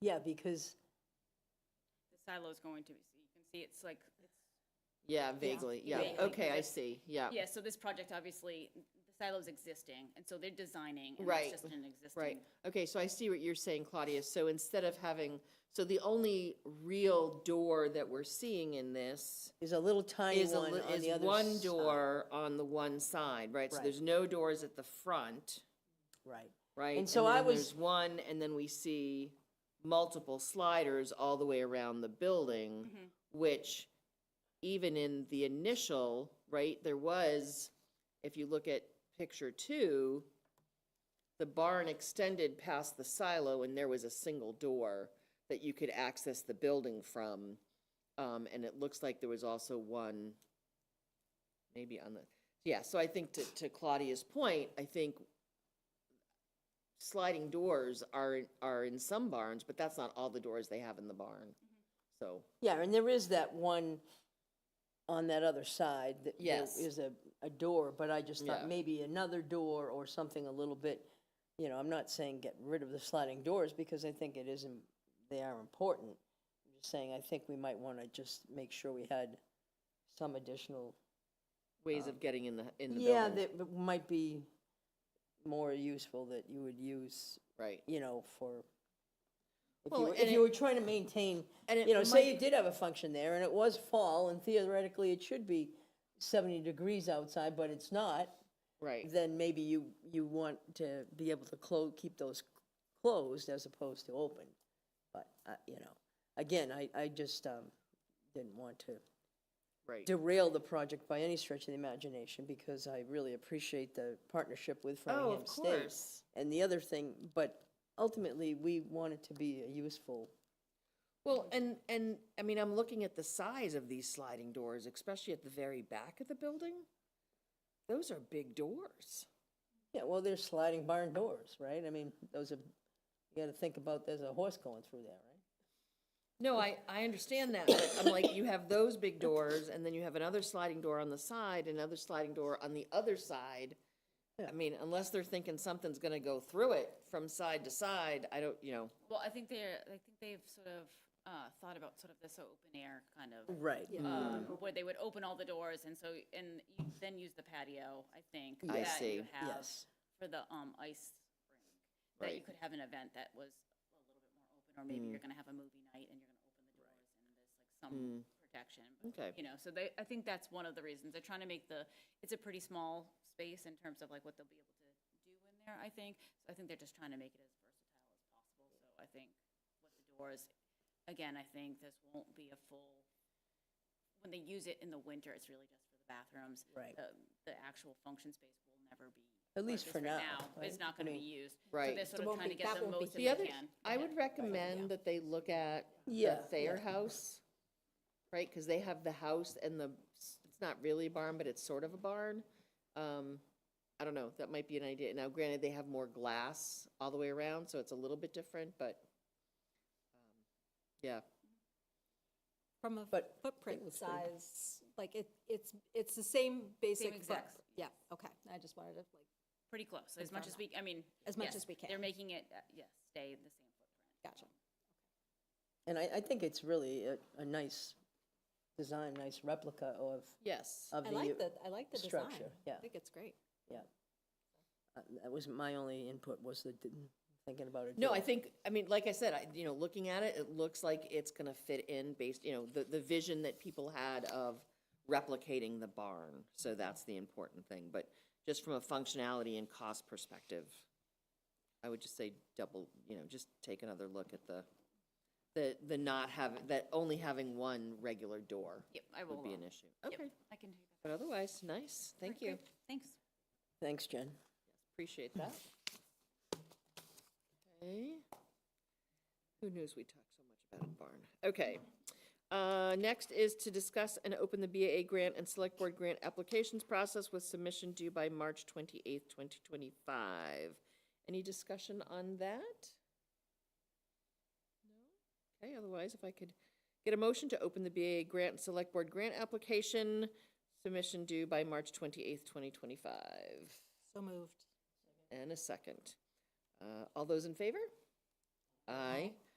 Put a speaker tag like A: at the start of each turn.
A: Yeah, because,
B: The silo's going to be, so you can see it's like,
C: Yeah, vaguely, yeah,
B: Vaguely,
C: okay, I
B: but-
C: see, yeah.
B: yeah, so this project, obviously, the silo's existing, and so they're designing, and
C: Right,
B: it's just an existing.
C: Right, okay, so I see what you're saying, Claudia, so instead of having, so the only real door that we're seeing in this
A: there's a little tiny
C: is a,
A: one
C: li-
A: on the
C: is
A: other.
C: one
A: side.
C: door on the one side, right? So
A: Right.
C: there's no doors at the front,
A: Right.
C: right?
A: so I
C: then
A: was-
C: There's one, and then we see multiple sliders all the way around the building,
B: Mm-hmm.
C: which even in the initial, right, there was, if you look at picture two, the barn extended past the silo and there was a single door that you could access the building from. Um, and it looks like there was also one, maybe on the, yeah, so I think to, to Claudia's point, I think sliding doors are, are in some barns, but that's not all the doors they have in the barn. So,
A: Yeah, and there is that one on that other side that there
C: Yes.
A: is a, a door, but I just
C: Yeah.
A: thought maybe another door or something a little bit, you know, I'm not saying get rid of the sliding doors because I think it isn't, they are important. I'm just saying, I think we might want to just make sure we had some additional.
C: ways of getting in the, in the
A: Yeah,
C: building,
A: that w- might be more useful that you would use,
C: right?
A: you know, for, if
C: Well,
A: you were,
C: and
A: if you
C: it-
A: were trying to maintain
C: And it
A: you know, say you
C: might-
A: did have a function there and it was fall and theoretically it should be seventy degrees outside, but it's not,
C: Right,
A: then maybe you, you want to be able to close, keep those closed as opposed to open. But, uh, you know, again, I, I just, um, didn't want to
C: right.
A: derail the project by any stretch of the imagination because I really appreciate the partnership with
C: Oh, of
A: Framingham State.
C: course.
A: And the other thing, but ultimately, we want it to be a useful
C: Well, and, and, I mean, I'm looking at the size of these sliding doors, especially at the very back of the building. Those are big doors.
A: Yeah, well, there's sliding barn doors, right? I mean, those are, you gotta think about, there's a horse going through there, right?
C: No, I, I understand that, but I'm like, you have those big doors, and then you have another sliding door on the side, another sliding door on the other side. I mean, unless they're thinking something's gonna go through it from side to side, I don't, you know,
B: Well, I think they're, I think they've sort of, uh, thought about sort of this open air kind of,
A: Right.
B: um,
C: Mm.
B: where they would open all the doors, and so, and you then use the patio, I think.
C: I
B: that you
C: see.
B: have
A: Yes.
B: For the, um, ice rink, that you
C: Right. Mm.
B: could have an event that was a little bit more open, or maybe you're gonna have a movie night and you're gonna open the doors, and there's like some protection. but,
C: Mm. Okay.
B: You know, so they, I think that's one of the reasons, they're trying to make the, it's a pretty small space in terms of like what they'll be able to do in there, I think. So I think they're just trying to make it as versatile as possible, so I think what the doors, again, I think this won't be a full, when they use it in the winter, it's really just for the bathrooms.
A: Right.
B: The, the actual function space will never be.
A: At
B: or
A: least for
B: right
A: now,
B: It's
A: right?
B: not
A: I
B: gonna be
A: mean-
B: used.
C: Right.
B: So they're
C: So
B: sort of
D: won't
B: trying
D: be-
B: to get
D: that
B: the
D: won't be-
B: most that
C: The
B: they
C: other,
B: can.
C: I
B: Yeah.
C: would recommend that they look at the
A: Yeah,
C: Thayer
A: yeah.
C: House, right? Because they have the house and the, it's not really a barn, but it's sort of a barn. Um, I don't know, that might be an idea. Now granted, they have more glass all the way around, so it's a little bit different, but, um, yeah,
D: From a
A: But-
D: footprint size, like it, it's, it's the same basic foot.
B: exact-
D: Yeah, okay, I just wanted to like,
B: Pretty close, as much as we, I mean.
D: As much
B: yes,
D: as we
B: They're
D: can.
B: making it, uh, yes, stay in the same footprint.
D: gotcha.
A: And I, I think it's really a, a nice design, nice replica of,
C: yes.
A: of
D: I
A: the.
D: like the, I like the design.
A: structure, yeah.
D: I think it's great.
A: Yeah. Uh, That was my only input, was the, didn't- thinking about it.
C: No, I think, I mean, like I said, I, you know, looking at it, it looks like it's gonna fit in based, you know, the, the vision that people had of replicating the barn. So that's the important thing, but just from a functionality and cost perspective, I would just say double, you know, just take another look at the, the, the not having, that only having one regular door
B: Yep, I will.
C: would be an
B: uh,
C: issue. Okay,
B: I can do that.
C: but otherwise, nice, thank you,
B: Thanks.
A: Thanks, Jen.
C: appreciate that. Okay. Who knows we talk so much about a barn? Okay. Uh, Next is to discuss and open the BAA grant and select board grant applications process with submission due by March 28th, 2025. Any discussion on that? No? Okay, otherwise, if I could get a motion to open the BAA grant and select board grant application, submission due by March 28th, 2025,
D: So moved.
C: and a second. Uh, All those in favor? Aye.